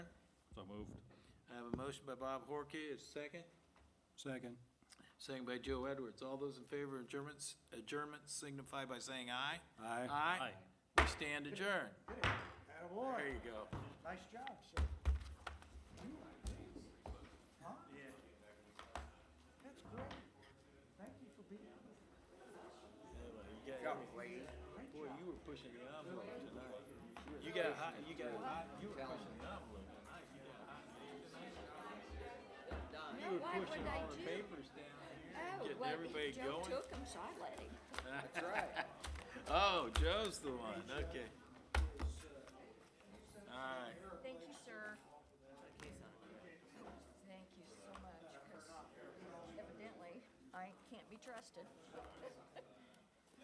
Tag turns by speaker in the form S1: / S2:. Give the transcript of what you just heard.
S1: moved.
S2: I have a motion by Bob Horky, is second.
S3: Second.
S2: Second by Joe Edwards. All those in favor of adjournments, adjournment signify by saying aye.
S3: Aye.
S2: Aye. We stand adjourned. There you go.
S4: Nice job, sir. Huh? Yeah. That's great. Thank you for being here.
S2: Boy, you were pushing the envelope tonight. You got hot, you got hot, you were pushing the envelope tonight. You
S5: No,
S2: were
S5: Oh, why would
S2: pushing all the
S5: they do?
S2: papers down.
S5: Oh,
S2: Getting
S5: well,
S2: everybody
S5: he- Joe
S2: going.
S5: took them, so I let him.
S2: Oh, Joe's the one, okay. All right.
S5: Thank you, sir. Thank you so much, because evidently I can't be trusted.